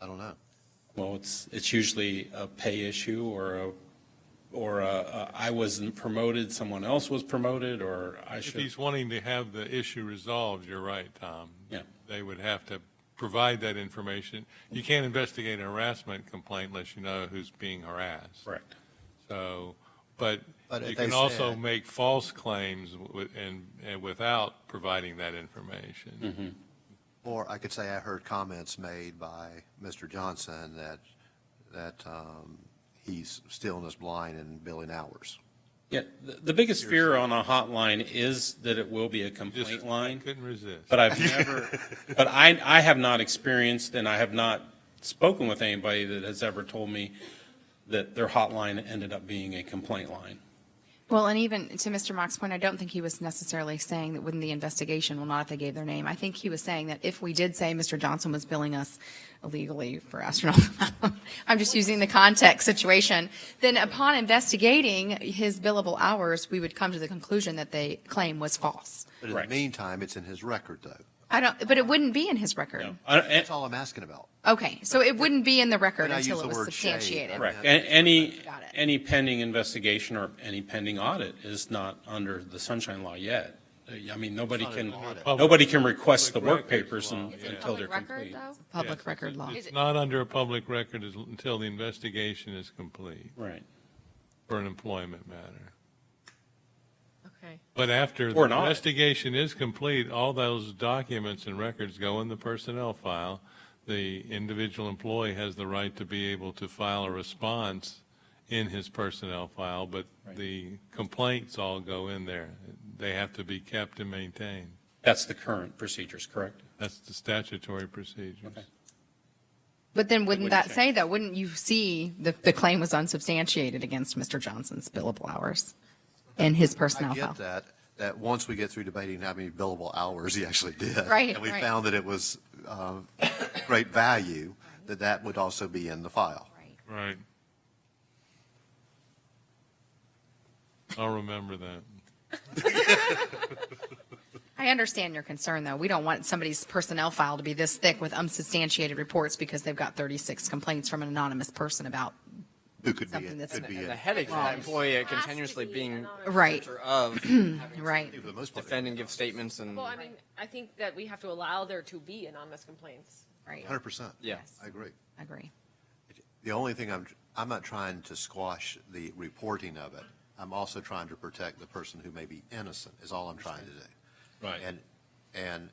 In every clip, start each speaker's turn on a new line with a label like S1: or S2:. S1: I don't know.
S2: Well, it's, it's usually a pay issue or a, or a, a, I wasn't promoted, someone else was promoted, or I
S3: If
S2: should.
S3: he's wanting to have the issue resolved, you're right, Tom.
S2: Yeah.
S3: They would have to provide that information. You can't investigate a harassment complaint unless you know who's being harassed.
S2: Correct.
S3: So, but
S1: But
S3: you
S1: if they
S3: can also
S1: said-
S3: make false claims wi- and, and without providing that
S1: Mm-hmm.
S3: information.
S1: Or I could say I heard comments made by Mr. Johnson that, that um, he's stealing us blind and billing hours.
S2: Yeah, the, the biggest fear on a hotline is that it will be a complaint
S3: Just
S2: line,
S3: couldn't resist.
S2: but I've never, but I, I have not experienced, and I have not spoken with anybody that has ever told me that their hotline ended up being a complaint line.
S4: Well, and even to Mr. Mock's point, I don't think he was necessarily saying that wouldn't the investigation, well, not if they gave their name. I think he was saying that if we did say Mr. Johnson was billing us illegally for astronaut, I'm just using the context situation, then upon investigating his billable hours, we would come to the conclusion that they claim was false.
S1: But in the
S2: Right.
S1: meantime, it's in his record, though.
S4: I don't, but it wouldn't be in his
S2: No,
S4: record.
S2: I- and-
S1: That's all I'm asking about.
S4: Okay, so it wouldn't be in the record
S1: When I use
S4: until
S1: the
S4: it was
S1: word shade,
S4: substantiated.
S1: I-
S2: Correct. A- Any,
S4: Got it.
S2: any pending investigation or any pending audit is not under the sunshine law yet. Uh, I mean, nobody
S1: It's not
S2: can,
S1: an audit.
S2: nobody can request the
S3: Public
S2: work
S3: records
S2: papers
S3: law,
S2: un-
S3: yeah.
S2: until they're complete.
S4: Public record law.
S3: It's not under a public record as- until the investigation is complete
S2: Right.
S3: for an employment matter.
S5: Okay.
S3: But after the
S2: Or not.
S3: investigation is complete, all those documents and records go in the personnel file. The individual employee has the right to be able to file a response in his personnel file, but the complaints all go in there. They have to be kept and maintained.
S2: That's the current procedures, correct?
S3: That's the statutory procedures.
S2: Okay.
S4: But then wouldn't
S2: wouldn't
S4: that say though, wouldn't you see the, the claim was unsubstantiated against Mr. Johnson's billable hours in his
S1: I
S4: personnel
S1: get
S4: file?
S1: that, that once we get through debating how many billable hours he actually did.
S4: Right,
S1: And we
S4: right.
S1: found that it was um, great value, that that would also be in the file.
S3: Right. I'll remember that.
S4: I understand your concern though. We don't want somebody's personnel file to be this thick with unsubstantiated reports because they've got 36 complaints from an anonymous person about,
S1: Who could be,
S4: Something
S1: it?
S4: that's
S1: could
S4: in
S1: be,
S4: it.
S1: it.
S6: the headache for that employee of continuously
S5: Has to be
S6: being
S5: anonymous.
S4: right,
S6: or of having
S4: right.
S1: for the most
S6: to
S1: part.
S6: defend and give statements and
S5: Well, I mean, I think that we have to allow there to be anonymous complaints.
S4: Right.
S1: 100%.
S6: Yeah.
S4: Yes.
S1: I agree.
S4: I Agree.
S1: The only thing I'm, I'm not trying to squash the reporting of it. I'm also trying to protect the person who may be innocent, is all I'm trying to do.
S2: Right.
S1: And, and,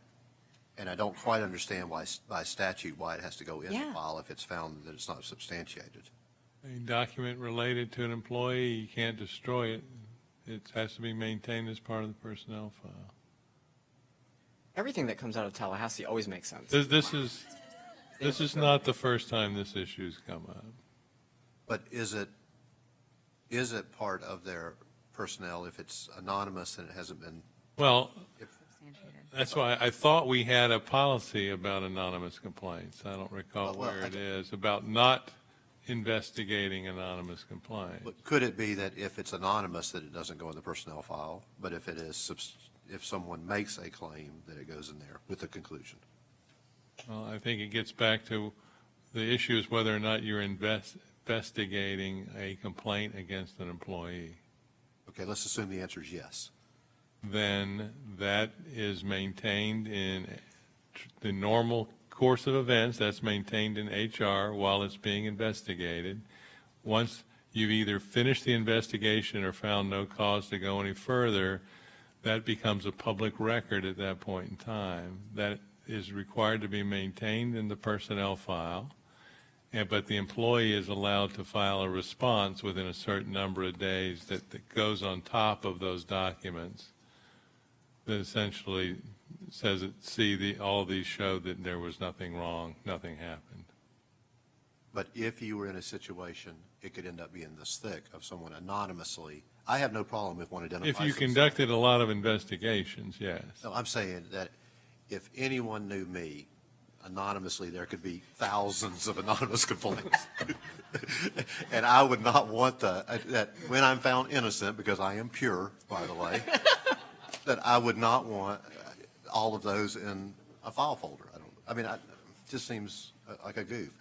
S1: and I don't quite understand why, s- by statute, why it has to go in the
S4: Yeah.
S1: file if it's found that it's not substantiated.
S3: A document related to an employee, you can't destroy it. It has to be maintained as part of the personnel file.
S6: everything that comes out of Tallahassee always makes sense.
S3: This, this is, this is not the first time this issue's come up.
S1: But is it, is it part of their personnel if it's anonymous and it hasn't been?
S3: Well,
S4: Substantiated.
S3: that's why I thought we had a policy about anonymous complaints. I don't recall
S1: Well, well,
S3: where
S1: I
S3: it
S1: don't-
S3: is, about not investigating anonymous complaints.
S1: But could it be that if it's anonymous, that it doesn't go in the personnel file? But if it is, subs- if someone makes a claim, that it goes in there with the conclusion?
S3: Well, I think it gets back to, the issue is whether or not you're invest, investigating a complaint against an employee.
S1: Okay, let's assume the answer is yes.
S3: then that is maintained in tr- the normal course of events, that's maintained in HR while it's being investigated. Once you've either finished the investigation or found no cause to go any further, that becomes a public record at that point in time. That is required to be maintained in the personnel file, and, but the employee is allowed to file a response within a certain number of days that, that goes on top of those documents that essentially says that, see, the, all these show that there was nothing wrong, nothing happened.
S1: But if you were in a situation, it could end up being this thick of someone anonymously. I have no problem if one identifies.
S3: If you
S1: themselves.
S3: conducted a lot of investigations, yes.
S1: No, I'm saying that if anyone knew me anonymously, there could be thousands of anonymous complaints. And I would not want the, uh, that when I'm found innocent, because I am pure, by the way, that I would not want all of those in a file folder. I don't, I mean, I, it just seems uh, like a goof.